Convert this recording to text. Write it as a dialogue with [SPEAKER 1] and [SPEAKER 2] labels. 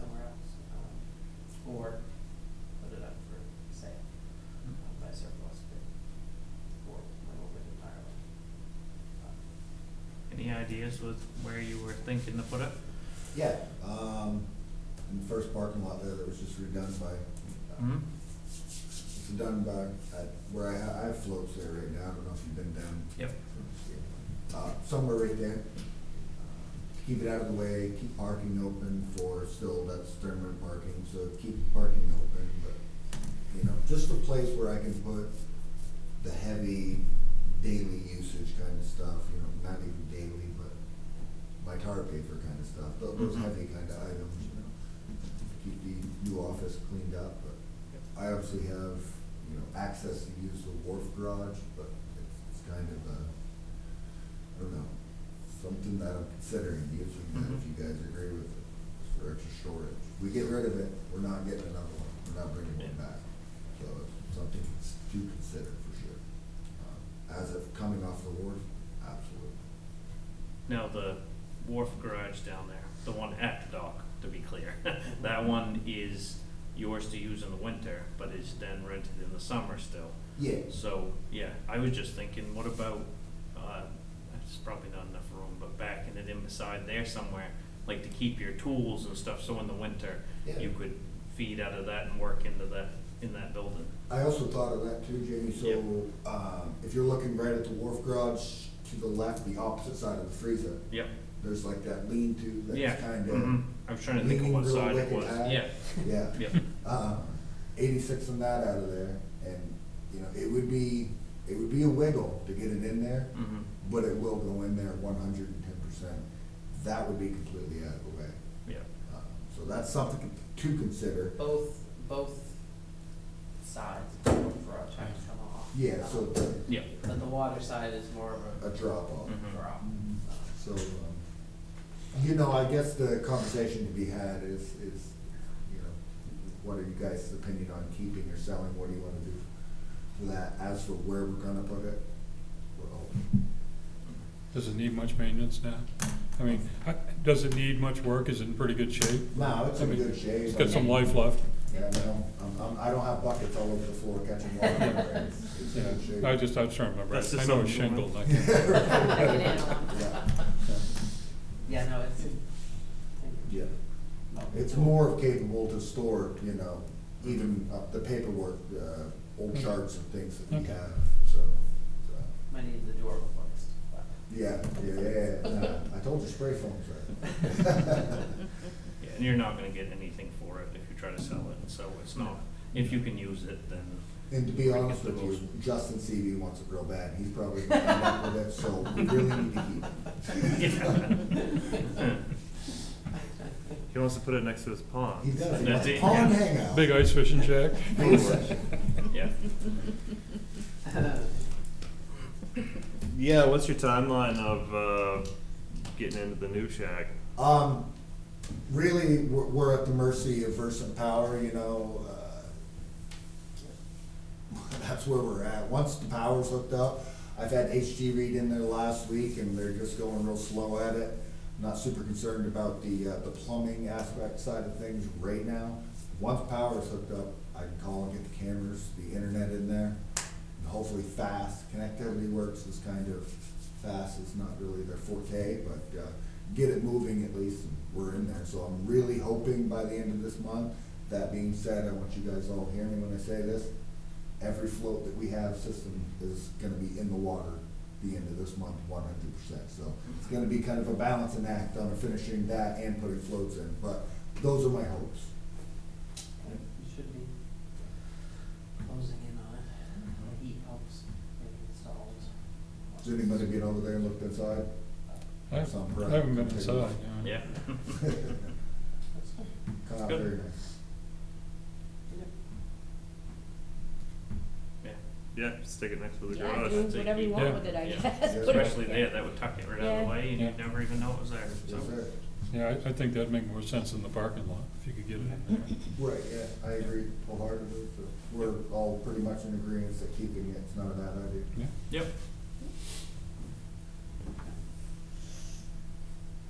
[SPEAKER 1] um, areas with where you were thinking to put it?
[SPEAKER 2] Yeah, um, in the first parking lot there that was just redone by,
[SPEAKER 1] Hmm?
[SPEAKER 2] it's done by, I- where I, ha- I have floats there right now, I don't know if you've been down.
[SPEAKER 1] Yep.
[SPEAKER 2] Uh, somewhere right there. Keep it out of the way, keep parking open for, still, that's Sternman parking, so keep parking open, but, you know, just a place where I can put the heavy daily usage kind of stuff, you know, not even daily, but my tar paper kind of stuff, tho- those
[SPEAKER 1] Mhm.
[SPEAKER 2] heavy kind of items, you know. Keep the new office cleaned up, but I obviously have, you know, access to use the wharf garage, but it's, it's kind of a, I don't know, something that I'm considering using that if
[SPEAKER 1] Mhm.
[SPEAKER 2] you guys agree with it, just for extra storage. We get rid of it, we're not getting another one, we're not bringing one
[SPEAKER 1] Yeah.
[SPEAKER 2] back. So it's something to consider for sure. Um, As of coming off the wharf, absolutely.
[SPEAKER 1] Now, the wharf garage down there, the one at the dock, to be clear, that one is yours to use in the winter, but is then rented in the summer still.
[SPEAKER 2] Yeah,
[SPEAKER 1] So, yeah, I was just thinking, what about, uh, it's probably not enough room, but backing it in beside there somewhere, like to keep your tools and stuff, so in the winter,
[SPEAKER 2] Yeah.
[SPEAKER 1] you could feed out of that and work into that, in that building.
[SPEAKER 2] I also thought of that too, Jamie,
[SPEAKER 1] Yep.
[SPEAKER 2] so, um, if you're looking right at the wharf garage, to the left, the opposite side of the freezer,
[SPEAKER 1] Yep,
[SPEAKER 2] there's like that lean-to
[SPEAKER 1] yeah,
[SPEAKER 2] that's kind
[SPEAKER 1] mhm.
[SPEAKER 2] of.
[SPEAKER 1] I was trying to think of
[SPEAKER 2] leaning
[SPEAKER 1] what
[SPEAKER 2] real
[SPEAKER 1] side it
[SPEAKER 2] wicked
[SPEAKER 1] was,
[SPEAKER 2] high.
[SPEAKER 1] yeah,
[SPEAKER 2] Yeah.
[SPEAKER 1] yep,
[SPEAKER 2] um, eighty-six and that out of there, and, you know, it would be, it would be a wiggle to get it in there,
[SPEAKER 1] mhm,
[SPEAKER 2] but it will go in there one hundred and ten percent. That would be completely out of the way.
[SPEAKER 1] yeah.
[SPEAKER 2] Um, So that's something to consider.
[SPEAKER 1] Oh.
[SPEAKER 3] Both, both sides of the garage have to come off. Um,
[SPEAKER 2] Yeah, so
[SPEAKER 1] Yeah.
[SPEAKER 3] But the water side is more of
[SPEAKER 2] a Mm-hmm. drop-off.
[SPEAKER 3] a
[SPEAKER 1] Mhm.
[SPEAKER 3] drop.
[SPEAKER 2] So, um, you know, I guess the conversation to be had is, is, you know, what are you guys' opinion on keeping or selling? What do you wanna do for that? As for where we're gonna put it, we're open.
[SPEAKER 4] Does it need much maintenance now? I mean, I- does it need much work? Is it in pretty good shape?
[SPEAKER 2] No, it's
[SPEAKER 4] I
[SPEAKER 2] in
[SPEAKER 4] mean,
[SPEAKER 2] good shape.
[SPEAKER 4] It's got some life left.
[SPEAKER 2] Yeah, no, I'm, I'm, I don't have buckets all over the floor catching water. It's- It's in good shape.
[SPEAKER 4] I just, I was trying to remember.
[SPEAKER 1] That's just
[SPEAKER 4] I know it's
[SPEAKER 1] something
[SPEAKER 4] shingled.
[SPEAKER 1] to
[SPEAKER 4] I
[SPEAKER 2] Yeah.
[SPEAKER 4] can't-
[SPEAKER 2] Yeah.
[SPEAKER 3] Yeah, no, it's.
[SPEAKER 2] Yeah. It's more of capable to store, you know, even uh, the paperwork, uh, old
[SPEAKER 4] Okay.
[SPEAKER 2] charts and things that we
[SPEAKER 4] Okay.
[SPEAKER 2] have, so. so,
[SPEAKER 3] Might need the door replaced, but.
[SPEAKER 2] Yeah, yeah, yeah, yeah, nah, I told you spray foam's right.
[SPEAKER 1] Yeah, and you're not gonna get anything for it if you try to sell it, so it's not, if you can use it, then,
[SPEAKER 2] And to be honest with you, Justin CV wants it real bad, he's probably gonna end up with it, so we really need to keep it.
[SPEAKER 5] He wants to put it next to his pond.
[SPEAKER 2] He does, he
[SPEAKER 1] That's
[SPEAKER 2] wants a
[SPEAKER 1] it,
[SPEAKER 2] pond
[SPEAKER 1] yeah.
[SPEAKER 2] hangout.
[SPEAKER 4] Big ice fishing shack?
[SPEAKER 2] Big session.
[SPEAKER 1] yeah.
[SPEAKER 5] Yeah, what's your timeline of uh, getting into the new shack?
[SPEAKER 2] Um, really, we're, we're at the mercy of Versant Power, you know, uh, that's where we're at. Once the power's hooked up, I've had HG Reed in there last week and they're just going real slow at it. Not super concerned about the, uh, the plumbing aspect side of things right now. Once power's hooked up, I can call and get the cameras, the internet in there, and hopefully fast. Connectivity Works is kind of fast, it's not really their forte, but, uh, get it moving at least, and we're in there. So I'm really hoping by the end of this month. That being said, I want you guys all to hear me when I say this. Every float that we have system is gonna be in the water the end of this month, one hundred percent. So it's gonna be kind of a balancing act on finishing that and putting floats in, but those are my hopes.
[SPEAKER 3] You should be closing in on it. The heat helps, maybe installed.
[SPEAKER 2] Does anybody get over there and look inside?
[SPEAKER 4] I haven't I haven't been inside, yeah.
[SPEAKER 1] Yeah.
[SPEAKER 3] That's good.
[SPEAKER 2] Come out
[SPEAKER 1] Good.
[SPEAKER 2] very nice.
[SPEAKER 1] Yeah.
[SPEAKER 5] Yeah, stick it next to the
[SPEAKER 6] Yeah,
[SPEAKER 5] garage.
[SPEAKER 6] do whatever you
[SPEAKER 4] Yeah.
[SPEAKER 6] want with it, I
[SPEAKER 1] Yeah.
[SPEAKER 6] guess.
[SPEAKER 2] Yeah.
[SPEAKER 6] Put it-
[SPEAKER 1] Especially there, that would tuck it right out of the
[SPEAKER 6] Yeah.
[SPEAKER 1] way, and you'd
[SPEAKER 4] Yeah.
[SPEAKER 1] never even know it was there, so.
[SPEAKER 2] Yes, sir.
[SPEAKER 4] Yeah, I, I think that'd make more sense in the parking lot, if you could get it in there.
[SPEAKER 2] Right, yeah, I agree wholeheartedly, so we're all pretty much in agreement that keeping it's not a bad idea.
[SPEAKER 4] Yeah.
[SPEAKER 1] Yep,